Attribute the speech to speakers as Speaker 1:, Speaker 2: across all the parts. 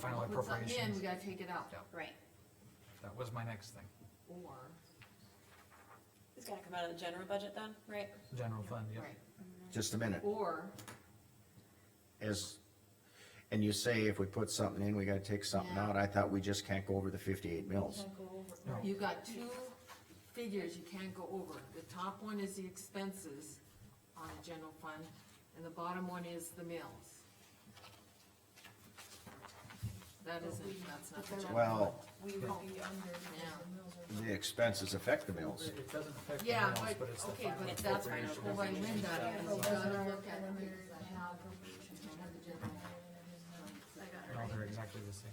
Speaker 1: Final
Speaker 2: Put something in, we
Speaker 1: appropriations,
Speaker 2: gotta take it out,
Speaker 1: Yeah.
Speaker 3: Right,
Speaker 1: that was my next thing,
Speaker 2: or,
Speaker 4: It's gotta come out of the general budget then?
Speaker 3: right.
Speaker 1: general fund, yeah.
Speaker 2: right,
Speaker 5: Just a minute,
Speaker 2: or,
Speaker 5: is, and you say if we put something in, we gotta take something
Speaker 2: Yeah.
Speaker 5: out, I thought we just can't go over the fifty-eight mills.
Speaker 1: No.
Speaker 2: you got two figures you can't go over. The top one is the expenses on the general fund, and the bottom one is the mills. That isn't, that's not the general.
Speaker 5: Well,
Speaker 6: We would be under the mills or
Speaker 5: the expenses affect the mills,
Speaker 1: It it doesn't affect the
Speaker 2: Yeah,
Speaker 1: mills,
Speaker 2: but,
Speaker 1: but it's the
Speaker 2: okay,
Speaker 1: final
Speaker 2: but that's why
Speaker 1: appropriations.
Speaker 2: I win that, is you gotta look at the mills.
Speaker 1: No, they're exactly the same.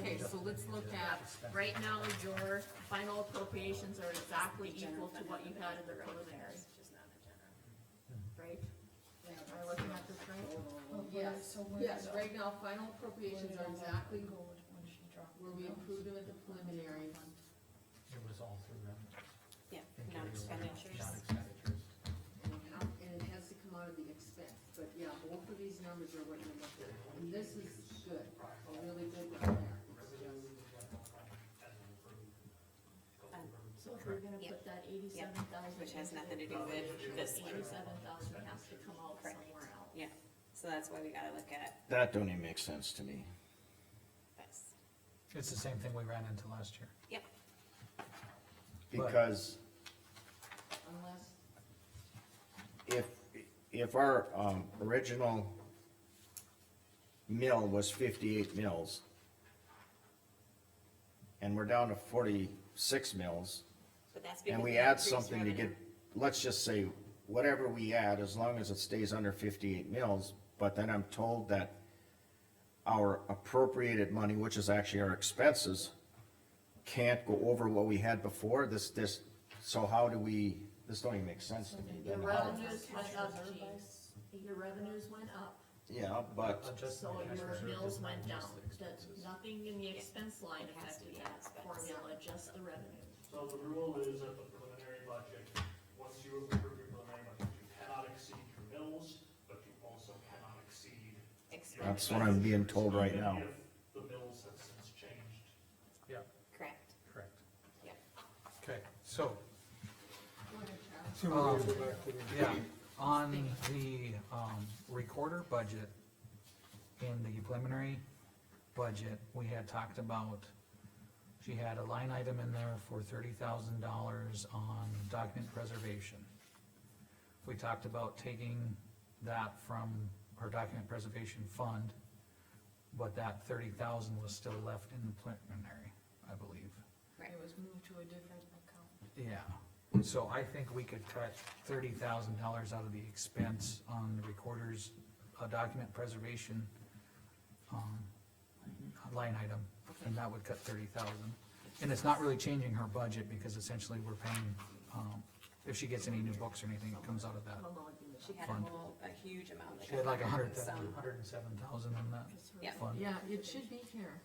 Speaker 2: Okay, so let's look at, right now, your final appropriations are exactly equal to what you had in the preliminary, right? Am I looking at this right?
Speaker 6: Well,
Speaker 2: Yes,
Speaker 6: Oh, so where
Speaker 2: Yes,
Speaker 6: did-
Speaker 2: right now, final appropriations are exactly
Speaker 6: Go with when she dropped the
Speaker 2: where we
Speaker 6: mills.
Speaker 2: approved them at the preliminary.
Speaker 1: It was all through them.
Speaker 4: Yeah,
Speaker 1: Thank you.
Speaker 4: non-expenditures.
Speaker 1: Non-expenditures.
Speaker 2: And it ha- and it has to come out of the expense, but yeah, both of these numbers are what you're looking at, and this is good, a really good one there.
Speaker 6: So if we're gonna
Speaker 3: Yep.
Speaker 6: put that eighty-seven thousand.
Speaker 4: Which has nothing to do with this one.
Speaker 6: Eighty-seven thousand has to come out
Speaker 4: Correct.
Speaker 6: somewhere else.
Speaker 4: Yeah, so that's why we gotta look at
Speaker 5: that don't even make sense to me.
Speaker 4: this.
Speaker 1: It's the same thing we ran into last year.
Speaker 4: Yep,
Speaker 5: Because
Speaker 2: Unless,
Speaker 5: if, if our, um, original mill was fifty-eight mills, and we're down to forty-six mills,
Speaker 4: but that's because.
Speaker 5: and we
Speaker 4: they
Speaker 5: add
Speaker 4: increased
Speaker 5: something to
Speaker 4: revenue.
Speaker 5: get, let's just say, whatever we add, as long as it stays under fifty-eight mills, but then I'm told that our appropriated money, which is actually our expenses, can't go over what we had before, this, this, so how do we, this don't even make sense to me.
Speaker 6: Your
Speaker 5: then.
Speaker 6: revenues went up, Gene. Your revenues went up,
Speaker 5: Yeah, but,
Speaker 1: Adjusted
Speaker 6: so
Speaker 1: cash
Speaker 6: your
Speaker 1: reserve
Speaker 6: mills
Speaker 1: does not
Speaker 6: went down.
Speaker 1: adjust the
Speaker 6: That,
Speaker 1: expenses.
Speaker 6: nothing in the expense line
Speaker 4: It has to
Speaker 6: affected
Speaker 4: be
Speaker 6: that
Speaker 4: expense.
Speaker 6: formula, just the revenue.
Speaker 7: So the rule is that the preliminary budget, once you approve your preliminary budget, you cannot exceed your mills, but you also cannot exceed. your
Speaker 4: Expense.
Speaker 5: That's what I'm being told right now.
Speaker 7: expenses, even if The mills have since changed.
Speaker 1: Yeah,
Speaker 4: Correct,
Speaker 1: correct.
Speaker 4: yeah.
Speaker 1: Okay, so, um,
Speaker 8: Two years back to the-
Speaker 1: yeah, on the, um, recorder budget, in the preliminary budget, we had talked about, she had a line item in there for thirty thousand dollars on document preservation. We talked about taking that from our document preservation fund, but that thirty thousand was still left in the preliminary, I believe.
Speaker 4: Right.
Speaker 6: was moved to a different account.
Speaker 1: Yeah, so I think we could cut thirty thousand dollars out of the expense on the recorder's, uh, document preservation, um, line item, and that would cut thirty thousand. And it's not really changing her budget, because essentially we're paying, um, if she gets any new books or anything, it comes out of that.
Speaker 4: She had a
Speaker 1: Fund.
Speaker 4: whole, a huge amount. that
Speaker 1: She had like a
Speaker 4: got
Speaker 1: hundred,
Speaker 4: some-
Speaker 1: a hundred and seven thousand in that
Speaker 4: Yeah,
Speaker 1: fund.
Speaker 2: yeah, it should be here.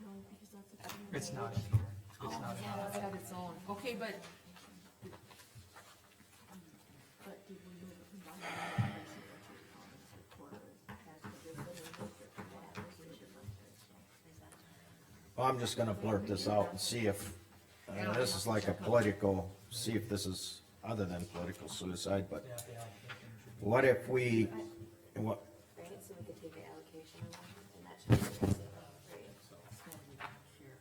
Speaker 6: No, because that's a.
Speaker 1: It's not in here, it's not in
Speaker 2: Yeah,
Speaker 1: here.
Speaker 2: it's got its own, okay, but
Speaker 6: But did we move it from one line item to the two columns, the quarter, has to do with the district, that was the different person.
Speaker 5: I'm just gonna blurt this out and see if, uh, this is like a political, see if this is other than political suicide, but
Speaker 1: Yeah, the allocation should be-
Speaker 5: what if we, what,
Speaker 4: right, so we could take the allocation on that, and that should be, right,
Speaker 2: it's gotta be back here.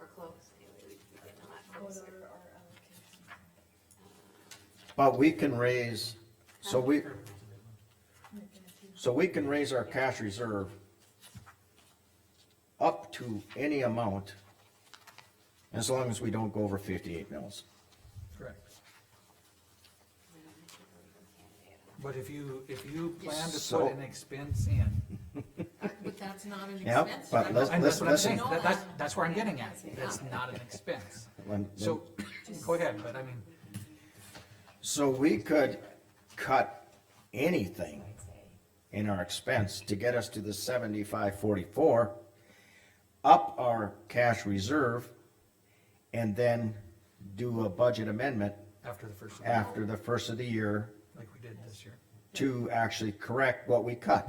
Speaker 4: or close, anyway, we'd be getting a lot closer.
Speaker 5: but we can raise, so we, so we can raise our cash reserve up to any amount, as long as we don't go over fifty-eight mils.
Speaker 1: Correct. But if you, if you plan to
Speaker 5: So-
Speaker 1: put an expense in,
Speaker 2: But that's not an
Speaker 5: Yep,
Speaker 2: expense.
Speaker 5: but
Speaker 2: That
Speaker 5: let's-
Speaker 2: goes-
Speaker 1: And that's what I'm
Speaker 5: listen.
Speaker 1: saying, that, that's, that's where I'm getting at, that's not an expense.
Speaker 5: When-
Speaker 1: So, go ahead, but I mean,
Speaker 5: So we could cut anything in our expense to get us to the seventy-five forty-four, up our cash reserve, and then do a budget amendment
Speaker 1: after the first,
Speaker 5: after the first of the year
Speaker 1: like we did this year.
Speaker 5: to actually correct what we cut.